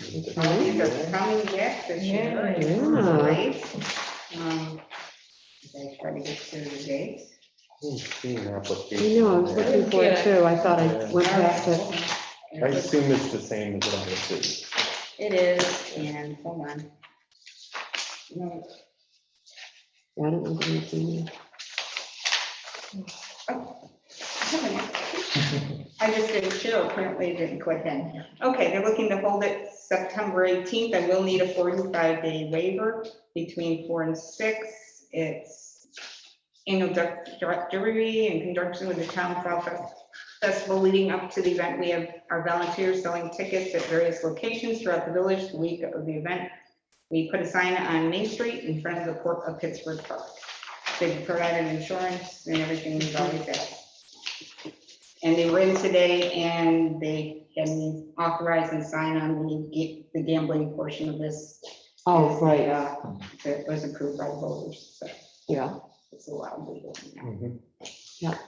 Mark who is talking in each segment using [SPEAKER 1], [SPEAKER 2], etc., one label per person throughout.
[SPEAKER 1] Well, these are coming back this year.
[SPEAKER 2] Yeah.
[SPEAKER 1] It's great. Um, They try to get through the dates.
[SPEAKER 3] I've seen an application
[SPEAKER 2] I know, I was
[SPEAKER 3] there.
[SPEAKER 2] looking for it too. I thought I went past it.
[SPEAKER 3] I assume it's the same as what I see.
[SPEAKER 1] It is, and hold on. No,
[SPEAKER 2] Yeah, I don't know if it's in there.
[SPEAKER 1] I haven't actually. I just didn't show, apparently it didn't click in. Okay, they're looking to hold it September 18th. I will need a 45-day waiver between four and six. It's annual direct- directory in conjunction with the town fall Fest- festival leading up to the event. We have our volunteers selling tickets at various locations throughout the village the week of the event. We put a sign on Main Street in front of the Port of Pittsburgh Park. They provided insurance and everything we've always asked. And they were in today and they can authorize and sign on the ga- the gambling portion of this
[SPEAKER 2] Oh, right,
[SPEAKER 1] uh, that was approved by the voters, so
[SPEAKER 2] yeah.
[SPEAKER 1] it's allowed legal now.
[SPEAKER 3] Mhm.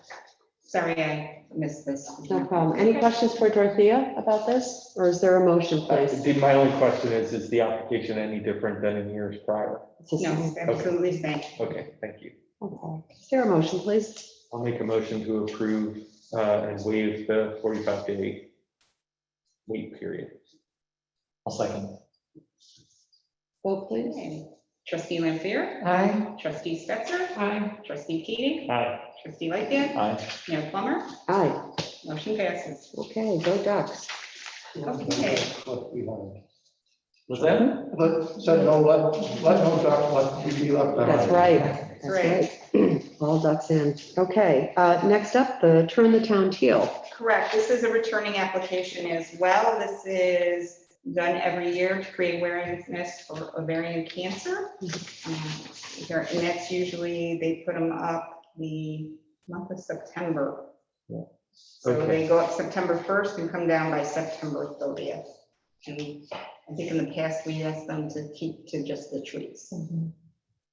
[SPEAKER 1] Sorry, I missed this.
[SPEAKER 2] No problem. Any questions for Dorothea about this, or is there a motion,
[SPEAKER 3] Uh,
[SPEAKER 2] please?
[SPEAKER 3] the- My only question is, is the application any different than in years prior?
[SPEAKER 2] It's the
[SPEAKER 1] No,
[SPEAKER 2] same.
[SPEAKER 1] it's absolutely thank
[SPEAKER 3] Okay, thank you.
[SPEAKER 2] Okay. Is there a motion, please?
[SPEAKER 3] I'll make a motion to approve uh, and waive the 45-day wait period.
[SPEAKER 4] I'll second.
[SPEAKER 2] Vote, please.
[SPEAKER 1] you. Trustee Lampier,
[SPEAKER 4] Aye.
[SPEAKER 1] trustee Stetser,
[SPEAKER 4] Aye.
[SPEAKER 1] trustee Keating,
[SPEAKER 3] Aye.
[SPEAKER 1] trustee Lightgev,
[SPEAKER 4] Aye.
[SPEAKER 1] Mayor Plummer,
[SPEAKER 2] Aye,
[SPEAKER 1] motion passes.
[SPEAKER 2] okay, go Ducks.
[SPEAKER 1] Okay.
[SPEAKER 5] What we wanted.
[SPEAKER 4] Was that?
[SPEAKER 5] Let, said no, let, let no duck, let we be left. behind.
[SPEAKER 2] That's right, that's right. All Ducks in. Okay, uh, next up, the Turn the Town Teal.
[SPEAKER 1] Correct. This is a returning application as well. This is done every year to create awareness for ovarian cancer. Um, there- And that's usually, they put them up the month of September.
[SPEAKER 3] Yeah.
[SPEAKER 1] So
[SPEAKER 3] Okay.
[SPEAKER 1] they go up September 1st and come down by September 30th. And I think in the past, we asked them to keep to just the trees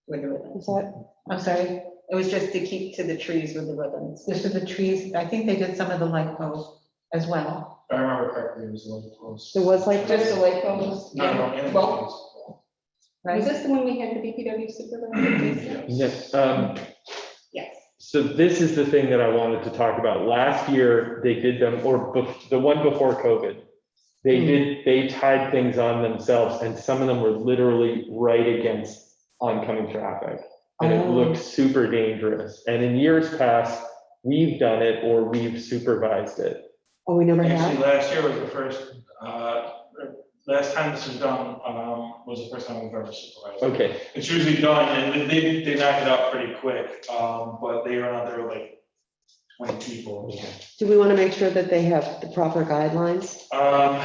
[SPEAKER 1] with the ribbons.
[SPEAKER 6] Is that, I'm sorry,
[SPEAKER 1] It was just to keep to the trees with the ribbons.
[SPEAKER 6] this is the trees, I think they did some of the light poles as well.
[SPEAKER 5] I remember correctly, it was a little close.
[SPEAKER 2] There was like this,
[SPEAKER 6] the light poles?
[SPEAKER 5] No, no, it was.
[SPEAKER 1] Was
[SPEAKER 6] Right,
[SPEAKER 1] this the one we had the BPW supervisor?
[SPEAKER 3] Yes, um,
[SPEAKER 1] Yes.
[SPEAKER 3] So this is the thing that I wanted to talk about. Last year, they did them, or bef- the one before COVID. They
[SPEAKER 2] Hmm.
[SPEAKER 3] did, they tied things on themselves and some of them were literally right against oncoming traffic. And it
[SPEAKER 2] Oh.
[SPEAKER 3] looked super dangerous. And in years past, we've done it or we've supervised it.
[SPEAKER 2] oh, we never
[SPEAKER 7] Actually,
[SPEAKER 2] had?
[SPEAKER 7] last year was the first, uh, last time this was done, um, was the first time we've ever supervised.
[SPEAKER 3] Okay,
[SPEAKER 7] It's usually done, and they- they, they knock it out pretty quick, um, but they were out there were like twenty people.
[SPEAKER 2] Do we want to make sure that they have the proper guidelines?
[SPEAKER 7] Um,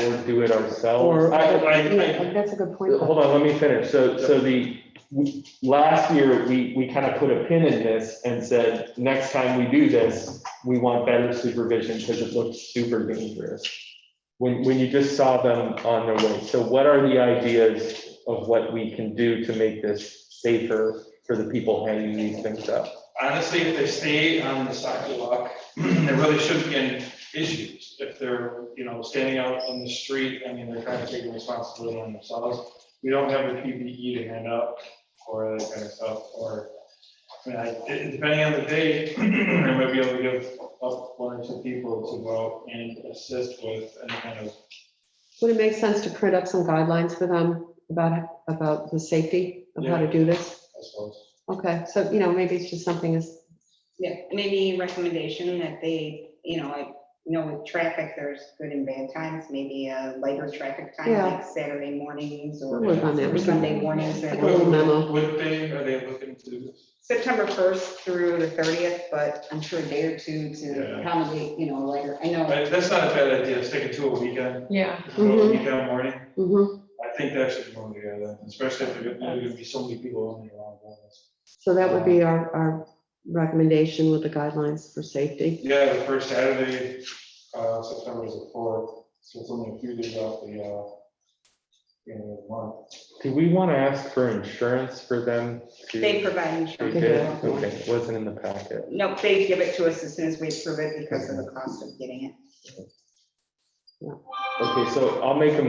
[SPEAKER 3] or do it ourselves.
[SPEAKER 2] Or,
[SPEAKER 7] Oh, I- I-
[SPEAKER 2] yeah, that's a good point.
[SPEAKER 3] Hold on, let me finish. So, so the, we- last year, we, we kind of put a pin in this and said, next time we do this, we want better supervision because it looks super dangerous. When, when you just saw them on their way. So what are the ideas of what we can do to make this safer for the people hanging these things up?
[SPEAKER 7] honestly, if they stay on the sidewalk, there really shouldn't be any issues. If they're, you know, standing out on the street, I mean, they're kind of taking responsibility on themselves. We don't have the PPE to hand out or that kind of stuff, or, I mean, I- it- depending on the day, I might be able to give up one or two people to go out and assist with any kind of
[SPEAKER 2] Would it make sense to print up some guidelines for them about, about the safety of how to do this?
[SPEAKER 7] I suppose.
[SPEAKER 2] Okay, so, you know, maybe it's just something is,
[SPEAKER 1] Yeah, maybe recommendation that they, you know, like, you know, with traffic, there's good and bad times, maybe a lighter traffic time,
[SPEAKER 2] Yeah.
[SPEAKER 1] like Saturday mornings
[SPEAKER 2] we'll
[SPEAKER 1] or
[SPEAKER 2] work on that.
[SPEAKER 1] or
[SPEAKER 2] We can-
[SPEAKER 1] Sunday mornings.
[SPEAKER 2] Like a little memo.
[SPEAKER 7] What day are they looking to do this?
[SPEAKER 1] September first through the thirtieth, but I'm sure a day or two to
[SPEAKER 7] Yeah.
[SPEAKER 1] accommodate, you know, later, I know.
[SPEAKER 7] But That's not a bad idea, sticking to a weekend,
[SPEAKER 6] yeah,
[SPEAKER 7] go a weekend morning.
[SPEAKER 2] Mhm.
[SPEAKER 7] I think that should go together, especially if there are gonna be so many people on the wrong ones.
[SPEAKER 2] So that would be our, our recommendation with the guidelines for safety.
[SPEAKER 7] Yeah, the first Saturday, uh, September is the fourth, so it's only a few days off the, uh, end of the month.
[SPEAKER 3] Do we want to ask for insurance for them? to-
[SPEAKER 1] They provide
[SPEAKER 3] We
[SPEAKER 1] insurance.
[SPEAKER 3] did, okay, it wasn't in the packet.
[SPEAKER 1] Nope, they give it to us as soon as we approve it because of the cost of getting it.
[SPEAKER 3] Okay, so I'll make a